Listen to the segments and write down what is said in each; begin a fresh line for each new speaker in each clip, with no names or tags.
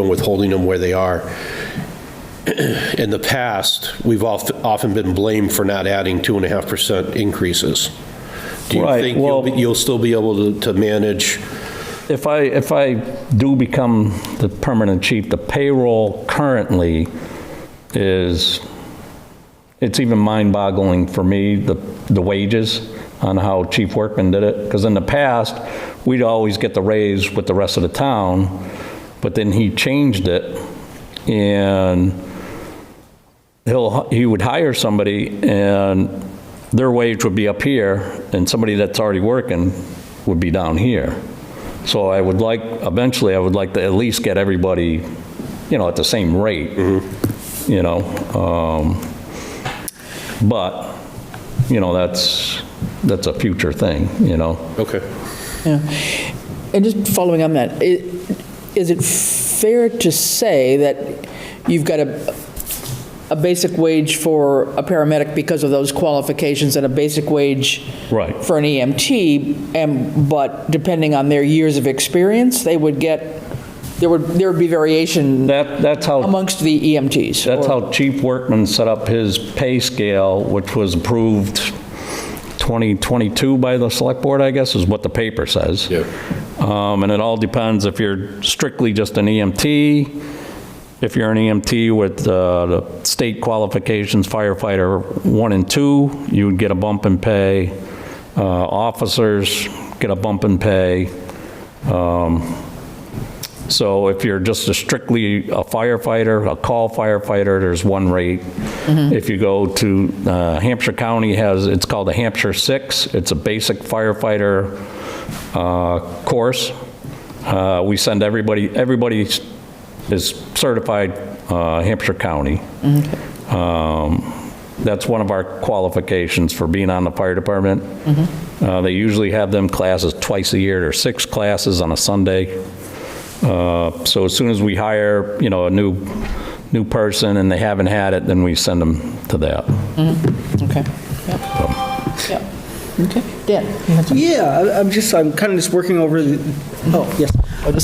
and withholding them where they are. In the past, we've oft- often been blamed for not adding 2.5% increases. Do you
Right,
think you'll,
well-
be- you'll still be able to- to manage?
If I, if I do become the permanent chief, the payroll currently is, it's even mind-boggling for me, the, the wages on how Chief Workman did it. Because in the past, we'd always get the raise with the rest of the town, but then he changed it. And he'll, he would hire somebody and their wage would be up here and somebody that's already working would be down here. So I would like, eventually, I would like to at least get everybody, you know, at the same rate, you know? um, But, you know, that's, that's a future thing, you know?
Okay.
Yeah. And just following on that, i- is it fair to say that you've got a, a basic wage for a paramedic because of those qualifications and a basic wage
Right.
for an EMT, and, but depending on their years of experience, they would get, there would, there would be variation
That, that's how.
amongst the EMTs?
That's
or-
how Chief Workman set up his pay scale, which was approved 2022 by the Select Board, I guess, is what the paper says.
Yeah.
Um, And it all depends if you're strictly just an EMT, if you're an EMT with uh, the state qualifications firefighter one and two, you would get a bump in pay. Uh, Officers get a bump in pay. So if you're just a strictly a firefighter, a call firefighter, there's one rate. If you go to, uh, Hampshire County has, it's called the Hampshire Six. It's a basic firefighter uh, course. Uh, We send everybody, everybody is certified uh, Hampshire County. Um, That's one of our qualifications for being on the fire department. Uh, They usually have them classes twice a year. There's six classes on a Sunday. Uh, So as soon as we hire, you know, a new, new person and they haven't had it, then we send them to that.
Okay. Yep. Yep. Okay. Dan? you had something?
Yeah, I- I'm just, I'm kind of just working over the, oh, yes.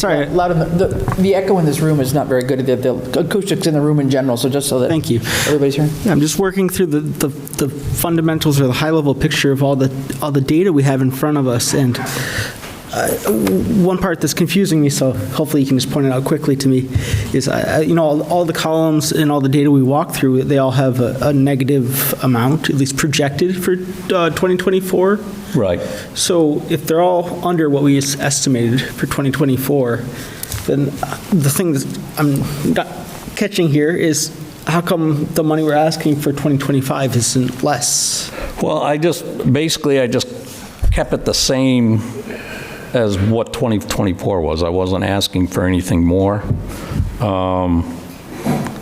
Sorry,
A lot of, the- the the echo in this room is not very good, The- the acoustics in the room in general, so just so that.
Thank you.
Everybody's hearing.
I'm just working through the, the the fundamentals or the high-level picture of all the, all the data we have in front of us, and uh, one part that's confusing me, so hopefully you can just point it out quickly to me, is, I- I- you know, all- all the columns and all the data we walk through, they all have a a negative amount, at least projected for uh, 2024.
Right.
So if they're all under what we es- estimated for 2024, then uh, the thing that I'm not catching here is how come the money we're asking for 2025 isn't less?
Well, I just, basically, I just kept it the same as what 2024 was. I wasn't asking for anything more. Um,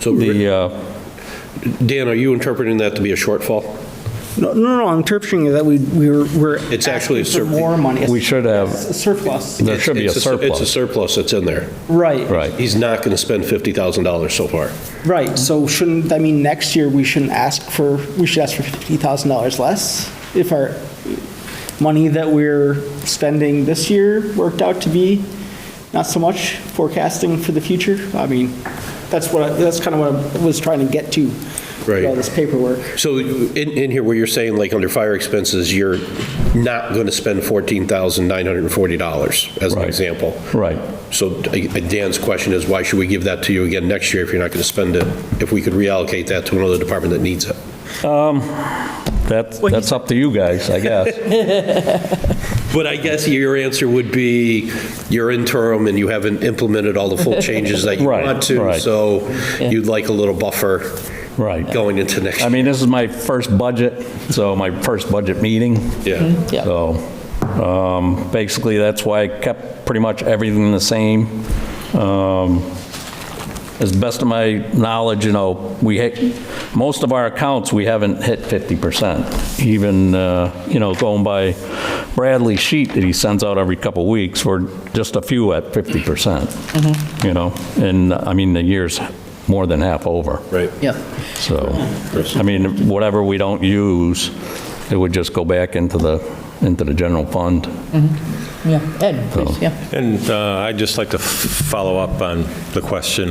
So,
The, uh,
Dan, are you interpreting that to be a shortfall?
No, no, no, I'm interpreting that we, we were, we're.
It's actually a
asking for
surplus.
More money.
we should have,
It's a surplus.
there should be a
It's It's a
surplus.
surplus that's in there.
Right.
Right.
He's not going to spend $50,000 so far.
Right, so shouldn't, I mean, next year, we shouldn't ask for, we should ask for $50,000 less if our money that we're spending this year worked out to be not so much forecasting for the future? I mean, that's what, I- that's kind of what I was trying to get to. through
Right.
All this paperwork.
So in, in here where you're saying like under fire expenses, you're not going to spend $14,940 as an
Right.
example.
Right.
So uh, Dan's question is why should we give that to you again next year if you're not going to spend it? If we could reallocate that to another department that needs it?
That's, that's up to you guys, I guess.
But I guess your answer would be you're interim and you haven't implemented all the full changes that you
Right,
want to.
right.
So you'd like a little buffer
Right.
going into next
I
year.
mean, this is my first budget, so my first budget meeting.
Yeah.
Yeah.
So um, basically, that's why I kept pretty much everything the same. Um, As best of my knowledge, you know, we, hit- most of our accounts, we haven't hit 50%. Even, uh, you know, going by Bradley's sheet that he sends out every couple weeks, we're just a few at 50%. You know, and I mean, the year's more than half over.
Right.
Yeah.
So, I mean, whatever we don't use It would just go back into the, into the general fund.
Yeah, Ed, please, yeah.
Oh.
And uh, I'd just like to f- follow up on the question